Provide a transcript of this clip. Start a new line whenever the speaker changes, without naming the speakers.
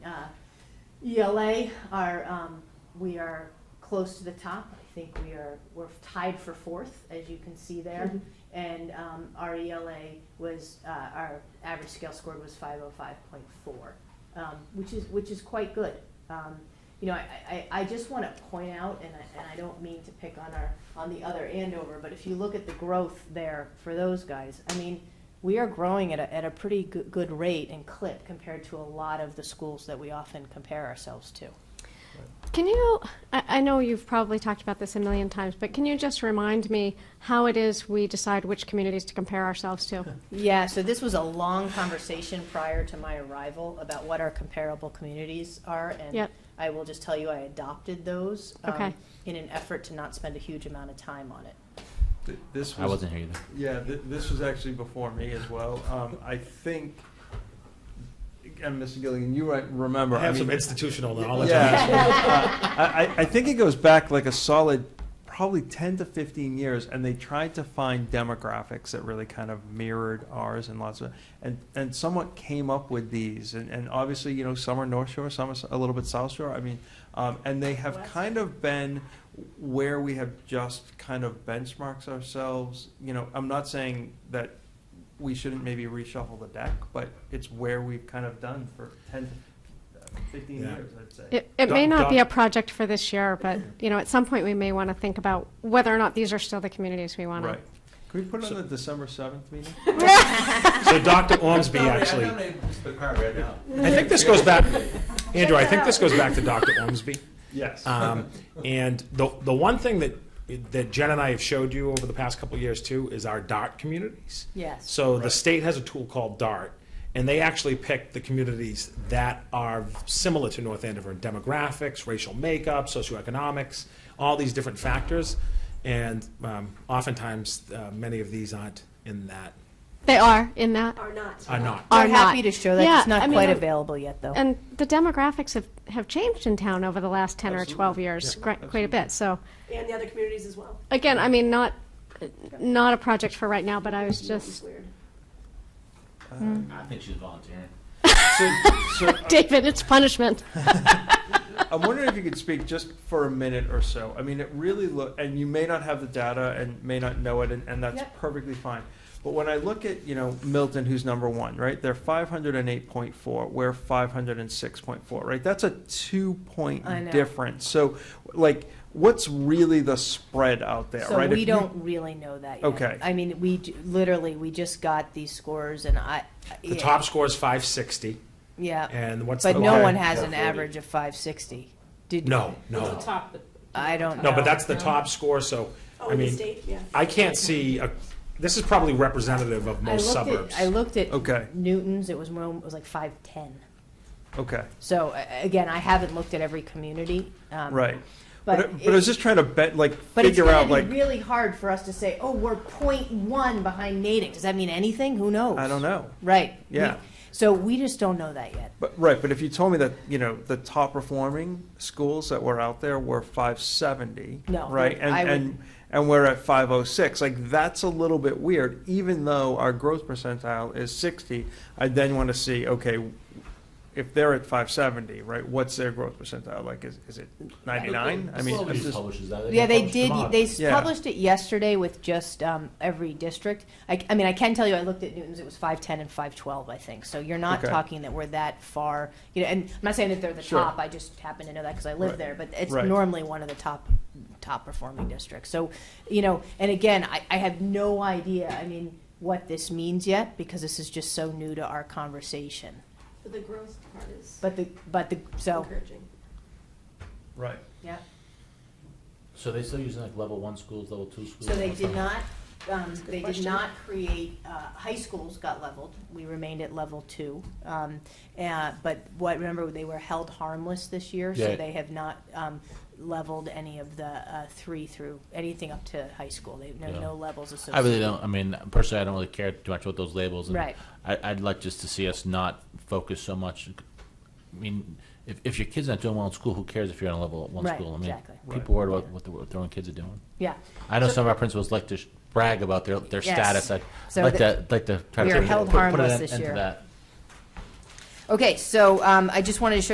Uh, ELA E are, um, we are close to the top. I think we are, we're tied for fourth, as you can see there. And, um, our ELA was, uh, our average scale scored was five oh five point four, um, which is, which is quite good. Um, you know, I, I, I just wanna point out, and I, and I don't mean to pick on our, on the other Andover, but if you look at the growth there for those guys, I mean, we are growing at a, at a pretty good, good rate and clip compared to a lot of the schools that we often compare ourselves to.
Can you, I, I know you've probably talked about this a million times, but can you just remind me how it is we decide which communities to compare ourselves to?
Yeah, so this was a long conversation prior to my arrival about what our comparable communities are, and
Yep.
I will just tell you I adopted those um,
Okay.
in an effort to not spend a huge amount of time on it.
Th- This
I
was,
wasn't here either.
yeah, th- this was actually before me as well. Um, I think, and Mr. Gilligan, you right, remember.
I have some
mean-
institutional knowledge.
Yeah. Uh, I, I- I think it goes back like a solid, probably ten to fifteen years, and they tried to find demographics that really kind of mirrored ours and lots of, and, and somewhat came up with these, and, and obviously, you know, some are North Shore, some are s- a little bit South Shore, I mean, um, and they have
West.
kind of been where we have just kind of benchmarks ourselves, you know, I'm not saying that we shouldn't maybe reshuffle the deck, but it's where we've kind of done for ten to fifteen
Yeah.
years, I'd say.
It, it may
Doc-
not be a
Doc-
project for this year, but, you know, at some point we may want to think about whether or not these are still the communities we want to.
Right. Can we put it on the December seventh meeting?
So Dr. Ormsby, actually, I think this goes back, Andrew, I think this goes back to Dr. Ormsby.
Yes.
Um, and the, the one thing that, that Jen and I have showed you over the past couple of years too is our DART communities.
Yes.
So the state has a tool called DART, and they actually pick the communities that are similar to North Andover in demographics, racial makeup, socioeconomics, all these different factors. And um, oftentimes, uh, many of these aren't in that,
They are in that,
Are not.
are not.
We're
are not.
happy to show that.
Yeah,
it's not
I mean,
quite
I'm-
available yet, though.
And the demographics have, have changed in town over the last 10 or 12 years, gri- quite a bit, so.
And the other communities as well.
Again, I mean, not, not a project for right now, but I was just,
Weird.
Mm.
I think she's volunteering.
So, so
David, it's punishment.
I'm wondering if you could speak just for a minute or so. I mean, it really look, and you may not have the data and may not know it, and, and that's
Yep.
perfectly fine. But when I look at, you know, Milton, who's number one, right? They're 508.4, we're 506.4, right? That's a two point
I know.
difference. So, like, what's really the spread out there,
so
right? If
we
you-
don't really know that yet.
Okay.
I mean, we j- literally we just got these scores, and I
The top score is 560,
yeah,
and what's the
but no
low?
one has an average of five sixty. Did
No, no.
I don't
No,
know.
but that's the top score, so,
Oh,
I
in the
mean,
state, yeah.
I can't see, a- this is probably representative of
I
most
looked
suburbs.
at I looked at
Okay.
Newton's. It was more, it was like five ten.
Okay.
So a- again, I haven't looked at every community. um,
Right.
But,
But, but I was
it-
just trying to bet, like,
but it's
figure
going
out,
to
like,
be really hard for us to say, oh, we're point one behind Natick. Does that mean anything? Who knows?
I don't know.
Right. We-
Yeah.
So we just don't know that yet.
But right, but if you told me that you know the top performing schools that were out there were 570,
No,
right, and
I would-
and and we're at 506, like that's a little bit weird. Even though our growth percentile is 60, I then want to see okay, if they're at 570, right, what's their growth percentile? Like, is is it 99? I mean, I'm just-
Yeah, they did. They s-
Yeah.
published it yesterday with just um, every district. I, I mean, I can tell you, I looked at Newton's. It was five ten and five twelve, I think. So you're not
Okay.
talking that we're that far. You know, and I'm not saying that they're the
Sure.
top. I just happen to know that because I live
Right.
there. But it's
Right.
normally one of the top top performing districts. So, you know, and again, I, I have no idea. I mean, what this means yet because this is just so new to our conversation.
But the growth part is
But the but the so
encouraging.
right.
yeah.
So they still using like level one schools, level two schools?
So they
level
did
three?
not, um,
a good
they did
question.
not create, uh, high schools got leveled, we remained at level two. Um, uh, but what, remember, they were held harmless this year, so
Yeah.
they have not, um, leveled any of the, uh, three through, anything up to high school, they, no,
Yeah.
no levels associated.
I really don't, I mean, personally, I don't really care too much about those labels. and
Right.
I, I'd like just to see us not focus so much, I mean, if, if your kid's not doing well in school, who cares if you're in a level one
Right,
school? I mean,
exactly.
Right.
People worry about what the- what their own kids are doing.
Yeah,
I know some of our principals like to sh- brag about their, their
Yes.
status. I'd
So
like
that-
to, like to try to.
we are
put-
held
put- put
harmless
an
this
end to
year.
that.
okay, so, um, I just wanted to show